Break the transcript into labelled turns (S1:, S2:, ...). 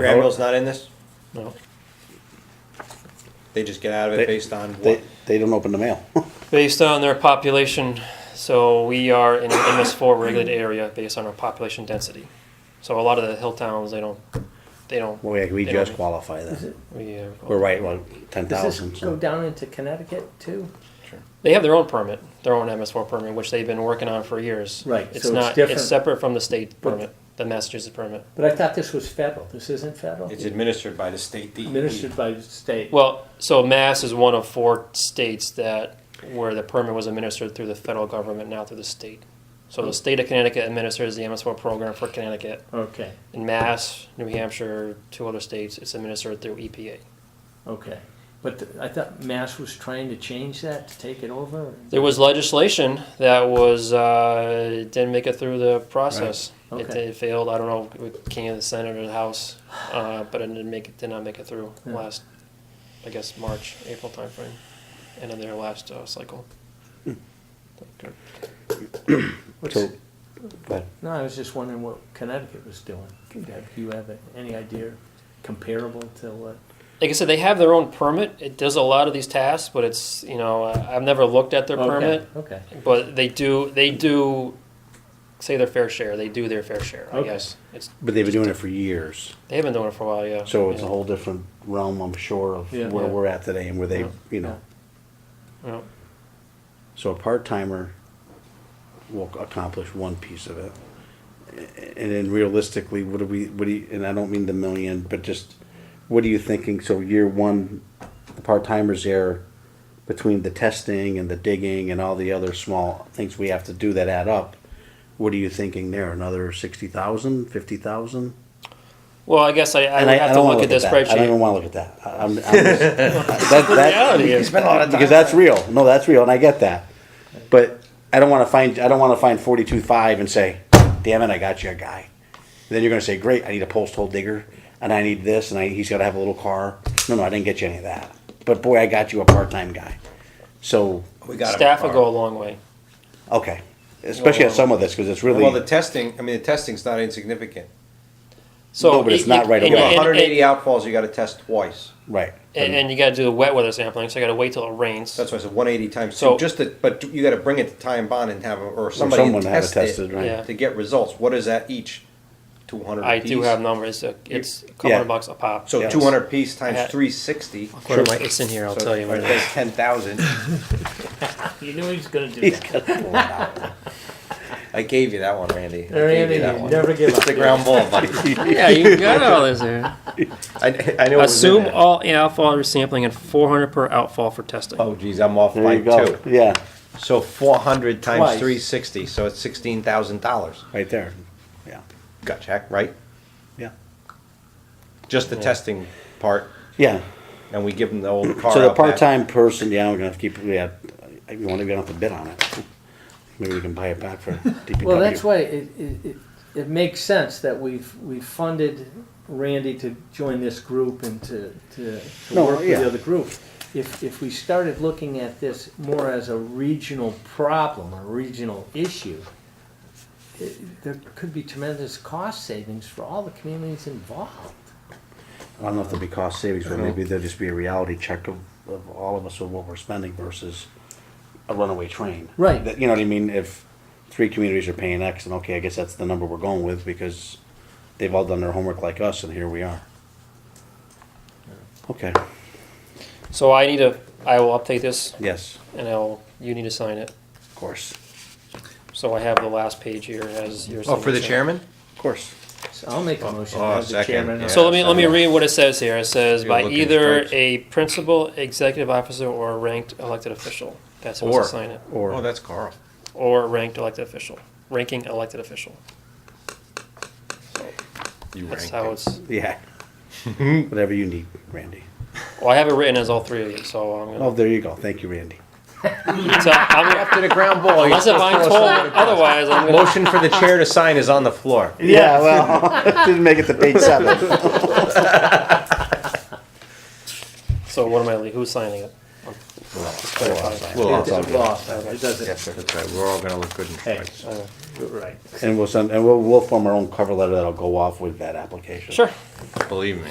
S1: Granville's not in this?
S2: No.
S1: They just get out of
S3: They-
S1: it based on what?
S3: They, they don't open the mail.
S2: Based on their population, so we are in an MS4 regulated area based on our population density. So a lot of the hill towns, they don't, they don't.
S3: Well, yeah, we
S2: they
S3: just
S2: don't-
S3: qualify then.
S2: we, uh,
S3: We're right, well, ten
S4: Does this
S3: thousand,
S4: go
S3: so.
S4: down into Connecticut too?
S2: They have their own permit, their own MS4 permit, which they've been working on for years.
S4: Right, so
S2: It's
S4: it's
S2: not,
S4: different.
S2: it's separate from the state
S4: But-
S2: permit, the Massachusetts permit.
S4: But I thought this was federal. This isn't federal?
S1: It's administered by the state E DEP.
S4: Administered by the state.
S2: Well, so Mass is one of four states that, where the permit was administered through the federal government, not through the state. So
S4: Hmm.
S2: the state of Connecticut administers the MS4 program for Connecticut.
S4: Okay,
S2: In Mass, New Hampshire, two other states, it's administered through E EPA.
S4: okay. But th- I thought Mass was trying to change that, to take it over?
S2: There was legislation that was uh, it didn't make it through the process.
S4: Right.
S2: It,
S4: Okay.
S2: it failed. I don't know. It came to the Senate or the House, uh, but it didn't make it. Did not make it through
S4: Yeah.
S2: last, I guess March, April timeframe, end of their last uh, cycle.
S4: What's-
S3: So- Go ahead.
S4: No, I was just wondering what Connecticut was doing. Do you have any idea comparable to what?
S2: Like I said, they have their own permit. It does a lot of these tasks, but it's you know I- I've never looked at their
S4: Okay,
S2: permit,
S4: Okay,
S2: but they do they do say their fair share. They do their fair share.
S4: Okay.
S2: I guess it's
S3: But they've been doing it for years,
S2: they've been doing it for a while. Yeah.
S3: so it's a
S2: Yeah.
S3: whole different realm, I'm sure, of
S4: Yeah.
S3: where
S2: Yeah.
S3: we're at today and where they,
S2: Yeah.
S3: you know.
S2: Yeah.
S3: So a part-timer will accomplish one piece of it. A- And then realistically, what do we, what do you, and I don't mean the million, but just, what are you thinking? So year one, the part-timers there, between the testing and the digging and all the other small things we have to do that add up, what are you thinking there? Another sixty thousand, fifty thousand?
S2: Well, I guess I, I
S3: And
S2: would have to
S3: don't wanna
S2: look at this
S3: that. I don't even
S2: spreadsheet.
S3: wanna look at that. I- I'm, I'm just, that, that,
S2: reality is-
S3: because that's real. No, that's real, and I get that. But I don't wanna find, I don't wanna find forty-two five and say, damn it, I got you a guy. Then you're gonna say, great, I need a post hole digger, and I need this, and I, he's gotta have a little car. No, no, I didn't get you any of that. But boy, I got you a part-time guy. So,
S1: We got 'em
S2: Staff would
S1: far.
S2: go a long way.
S3: okay, especially on some of this, cause it's really.
S1: Well, the testing, I mean, the testing's not insignificant.
S2: So
S3: No, but it's
S2: you-
S3: not
S2: you-
S3: right
S2: and-
S1: You
S3: away.
S1: have
S2: and-
S1: hundred and eighty outfalls, you gotta test twice.
S3: Right.
S2: And, and you got to do the wet weather sampling, so you got to wait till it rains.
S1: That's why I said one eighty times
S2: So-
S1: two, just to, but you gotta bring it to time bond and have, a- or somebody
S3: someone have it
S1: test it
S3: tested, right.
S2: Yeah.
S1: to get results. What is that each? Two hundred
S2: I
S1: piece?
S2: do have numbers. uh, It's a couple
S3: Yeah.
S2: hundred bucks a pop.
S1: So
S3: Yes.
S1: two hundred piece
S2: Yeah.
S1: times three sixty.
S2: Where am I- it's in here. I'll tell you. where it is.
S1: That's ten thousand.
S4: You knew he was gonna do
S3: He's
S4: that.
S3: got to pull it out.
S1: I gave you that one, Randy. I gave you
S4: Randy,
S1: that
S4: you
S1: one.
S4: never give
S1: It's
S4: up.
S1: the ground ball, buddy.
S2: Yeah, you got all this there.
S1: I, I know.
S2: Assume all outfall sampling and 400 per outfall for testing.
S1: Oh geez, I'm off
S3: There
S1: by
S3: you go.
S1: two.
S3: Yeah,
S1: So four hundred
S4: Twice.
S1: times three sixty, so it's sixteen thousand dollars.
S3: right there. Yeah,
S1: Gut check, right?
S3: yeah,
S1: Just the testing part,
S3: yeah.
S1: and we give them the old car.
S3: So the
S1: out back.
S3: part-time person, yeah, we're gonna have to keep, yeah, you wanna, we don't have to bid on it. Maybe we can buy it back for DPW.
S4: Well, that's why it, it, it, it makes sense that we've, we've funded Randy to join this group and to, to, to
S3: No,
S4: work with
S3: yeah.
S4: the other group. If, if we started looking at this more as a regional problem, a regional issue, it, there could be tremendous cost savings for all the communities involved.
S3: I don't know if there'll be cost savings, but maybe there'll just be a reality check of, of all of us of what we're spending versus a runaway train.
S4: Right.
S3: That- You know what I mean? If three communities are paying X, then okay, I guess that's the number we're going with because they've all done their homework like us and here we are. Okay,
S2: So I need to. I will update this,
S3: yes,
S2: and I'll. You need to sign it.
S3: of course,
S2: So I have the last page here as your.
S1: Oh, for the
S2: signature.
S1: chairman.
S3: of course.
S4: So I'll make a motion
S1: oh,
S4: as the
S1: second,
S4: chairman.
S1: yeah.
S2: So let me let me
S1: Yeah.
S2: read what it says here. It says
S1: You're
S2: by
S1: looking
S2: either
S1: straight.
S2: a principal, executive officer, or a ranked elected official. That's how
S1: Or.
S2: to sign it.
S3: Or.
S1: Oh, that's Carl.
S2: Or ranked elected official, ranking elected official.
S1: You ranked
S2: That's how
S1: him.
S2: it's.
S3: Yeah. Whatever you need, Randy.
S2: Well, I have it written as all three of you, so I'm
S3: Oh,
S2: gonna.
S3: there you go. Thank you, Randy.
S2: So I'm,
S1: to the ground ball.
S2: unless if I'm told otherwise, I'm gonna.
S1: Motion for the chair to sign is on the floor.
S3: Yeah, well, didn't make it to page seven.
S2: So what am I? le- Who's signing it?
S1: Well,
S4: It
S1: I'll
S4: doesn't
S1: tell you.
S4: cost, it doesn't,
S1: Yes, sir, that's right. We're all gonna look good in
S4: Hey.
S1: stripes.
S4: right.
S3: And we'll send, and we'll, we'll form our own cover letter that'll go off with that application.
S2: Sure.
S1: believe me.